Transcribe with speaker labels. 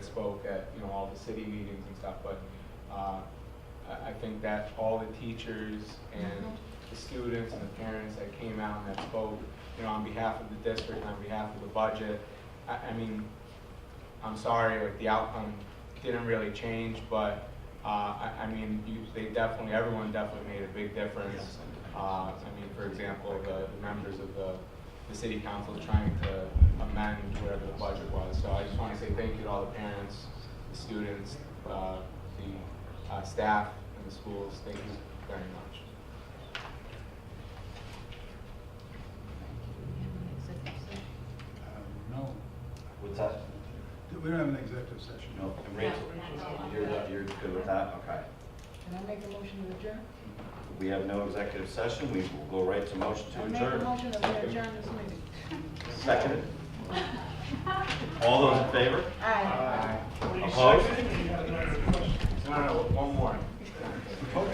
Speaker 1: spoke at, you know, all the city meetings and stuff, but uh, I I think that all the teachers and the students and the parents that came out and that spoke, you know, on behalf of the district, on behalf of the budget, I, I mean, I'm sorry, like the outcome didn't really change, but, uh, I, I mean, you, they definitely, everyone definitely made a big difference. Uh, I mean, for example, the the members of the, the city council trying to amend whatever the budget was. So I just wanna say thank you to all the parents, the students, uh, the, uh, staff and the schools, thank you very much.
Speaker 2: Um, No,
Speaker 3: What's that?
Speaker 2: we don't have an executive session.
Speaker 3: No, and Rachel, you're, not- you're good with that? Okay.
Speaker 4: Can I make a motion to adjourn?
Speaker 3: We have no executive session, we will go right to motion to
Speaker 4: I make a
Speaker 3: adjourn.
Speaker 4: motion to adjourn this meeting.
Speaker 3: Second. All those in favor?
Speaker 4: Aye.
Speaker 3: Opposed?
Speaker 1: No, no, no, one more.